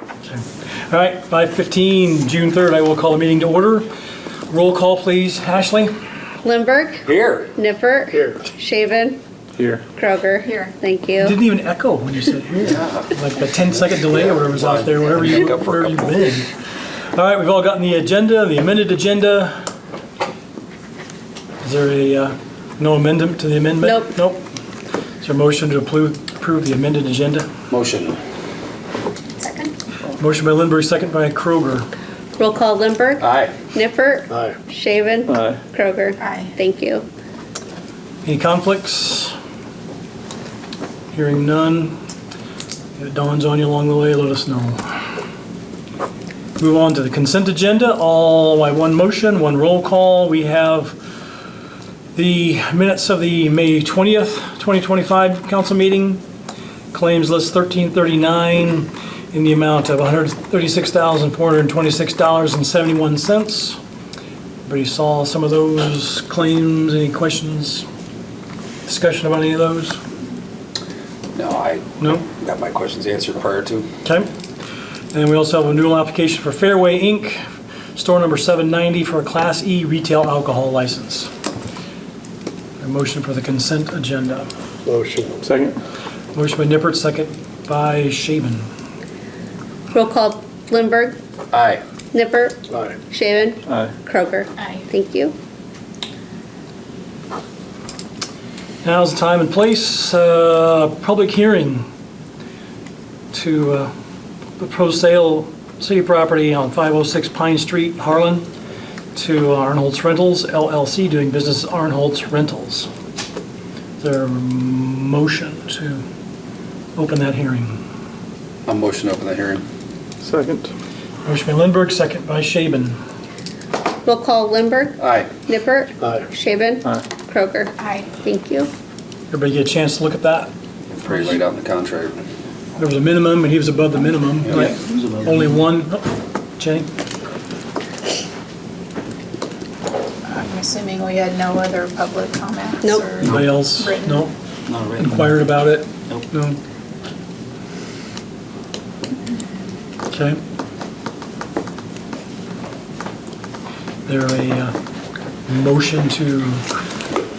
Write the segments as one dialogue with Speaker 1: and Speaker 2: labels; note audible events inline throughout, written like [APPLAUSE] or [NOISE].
Speaker 1: Interesting. All right, 5:15, June 3rd, I will call the meeting to order. Roll call, please. Ashley?
Speaker 2: Lindberg,
Speaker 3: Here.
Speaker 2: Nippert. Shaven.
Speaker 3: Here.
Speaker 2: Kroger. Here. Thank you.
Speaker 1: Didn't even echo when you said here. Like the 10-second delay or whatever was out there, wherever you,
Speaker 3: Echo for
Speaker 1: wherever
Speaker 3: a
Speaker 1: you've
Speaker 3: couple.
Speaker 1: been. All right, we've all gotten the agenda, the amended agenda. Is there a, uh, no amendment to the amendment?
Speaker 2: Nope.
Speaker 1: Nope. Is there a motion to approve approve the amended agenda?
Speaker 3: Motion.
Speaker 1: Motion by Lindberg, second by Kroger.
Speaker 2: Roll call Lindberg,
Speaker 3: Aye.
Speaker 2: Nippert.
Speaker 3: Aye.
Speaker 2: Shaven.
Speaker 3: Aye.
Speaker 2: Kroger. Thank you.
Speaker 1: Any conflicts? Hearing none. If it dawns on you along the way, let us know. Move on to the consent agenda, all by one motion, one roll call. We have the minutes of the May 20th, 2025 council meeting, claims list 1339 in the amount of $136,426.71. Everybody saw some of those claims, any questions, discussion about any of those?
Speaker 3: No, I
Speaker 1: No?
Speaker 3: got my questions answered prior to.
Speaker 1: Okay. And we also have a renewal application for Fairway Inc., store number 790 for a Class E retail alcohol license. A motion for the consent agenda.
Speaker 4: Motion. Second?
Speaker 1: Motion by Nippert, second by Shaven.
Speaker 2: Roll call Lindberg,
Speaker 3: Aye.
Speaker 2: Nippert,
Speaker 4: Aye.
Speaker 2: Shaven.
Speaker 4: Aye.
Speaker 2: Kroger. Aye. Thank you.
Speaker 1: Now's the time and place, uh, public hearing to uh, the pro sale city property on 506 Pine Street, Harlan, to Arnholtz Rentals LLC, doing business as Arnholtz Rentals. Is there a motion to open that hearing?
Speaker 3: I'm motion to open the hearing.
Speaker 4: Second?
Speaker 1: Motion by Lindberg, second by Shaven.
Speaker 2: Roll call Lindberg,
Speaker 3: Aye.
Speaker 2: Nippert.
Speaker 4: Aye.
Speaker 2: Shaven.
Speaker 4: Aye.
Speaker 2: Kroger. Aye. Thank you.
Speaker 1: Everybody get a chance to look at that?
Speaker 3: Pretty laid out in the contrary.
Speaker 1: There was a minimum, and he was above the minimum,
Speaker 3: Yeah.
Speaker 1: right? Only one, Oh, Jenny?
Speaker 5: I'm assuming we had no other public comments?
Speaker 2: Nope.
Speaker 5: or-
Speaker 1: Anybody else?
Speaker 5: Written.
Speaker 1: No? inquired about it? No. Okay. There a uh, motion to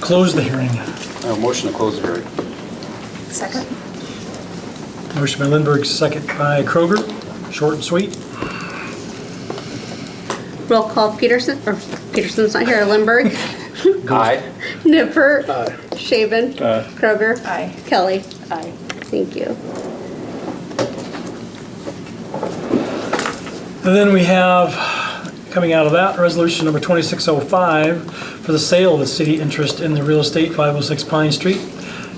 Speaker 1: close the hearing.
Speaker 3: Uh, motion to close the hearing.
Speaker 5: Second?
Speaker 1: Motion by Lindberg, second by Kroger. Short and sweet.
Speaker 2: Roll call Peterson, or Peterson's not here,
Speaker 4: [LAUGHS]
Speaker 2: Lindberg,
Speaker 3: Aye.
Speaker 2: Nippert.
Speaker 4: Aye.
Speaker 2: Shaven.
Speaker 4: Aye.
Speaker 2: Kroger.
Speaker 5: Aye.
Speaker 2: Kelly.
Speaker 5: Aye.
Speaker 2: Thank you.
Speaker 1: And then we have, coming out of that, resolution number 2605 for the sale of the city interest in the real estate 506 Pine Street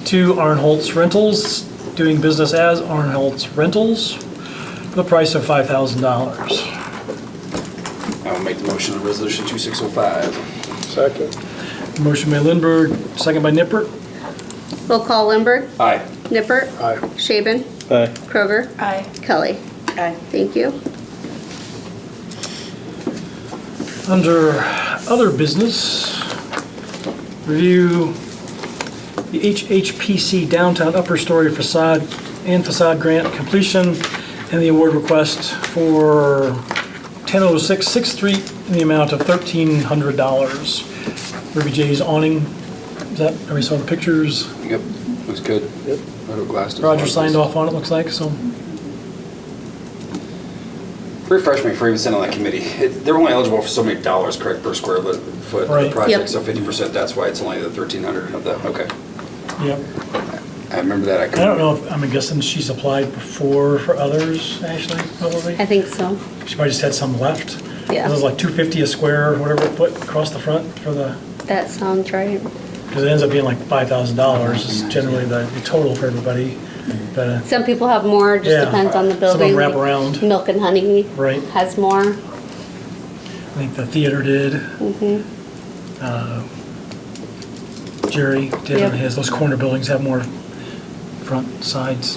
Speaker 1: to Arnholtz Rentals, doing business as Arnholtz Rentals, for the price of $5,000.
Speaker 3: I will make the motion on resolution 2605.
Speaker 4: Second?
Speaker 1: Motion by Lindberg, second by Nippert.
Speaker 2: Roll call Lindberg,
Speaker 3: Aye.
Speaker 2: Nippert.
Speaker 4: Aye.
Speaker 2: Shaven.
Speaker 4: Aye.
Speaker 2: Kroger.
Speaker 5: Aye.
Speaker 2: Kelly.
Speaker 5: Aye.
Speaker 2: Thank you.
Speaker 1: Under other business, review the HHPC downtown upper story facade and facade grant completion and the award request for 1006 6th Street in the amount of $1,300. Ruby J's awning, is that, we saw the pictures,
Speaker 3: Yep. Looks good.
Speaker 4: Yep.
Speaker 3: Little glass.
Speaker 1: Roger signed off on it, looks like, so.
Speaker 3: Refresh me for even sitting on that committee. It- They're only eligible for so many dollars, correct, per square foot for
Speaker 1: Right.
Speaker 3: the
Speaker 1: Yep.
Speaker 3: project. So 50%, that's why it's only the 1,300 of the, okay.
Speaker 1: Yep.
Speaker 3: I remember that.
Speaker 1: I don't know, if I'm guessing she's applied before for others, Ashley, probably?
Speaker 2: I think so.
Speaker 1: She probably just had some left.
Speaker 2: Yeah.
Speaker 1: It was like two fifty a square, or whatever foot across the front for the,
Speaker 2: That sounds right.
Speaker 1: because it ends up being like five thousand dollars is generally the the total for everybody. But, uh,
Speaker 2: Some people have more, just
Speaker 1: Yeah.
Speaker 2: depends on the
Speaker 1: Some of them
Speaker 2: building.
Speaker 1: wrap around.
Speaker 2: Milk and Honey
Speaker 1: Right.
Speaker 2: has more.
Speaker 1: I think the theater did. Uh, Jerry did on
Speaker 2: Yep.
Speaker 1: his, those corner buildings have more front sides.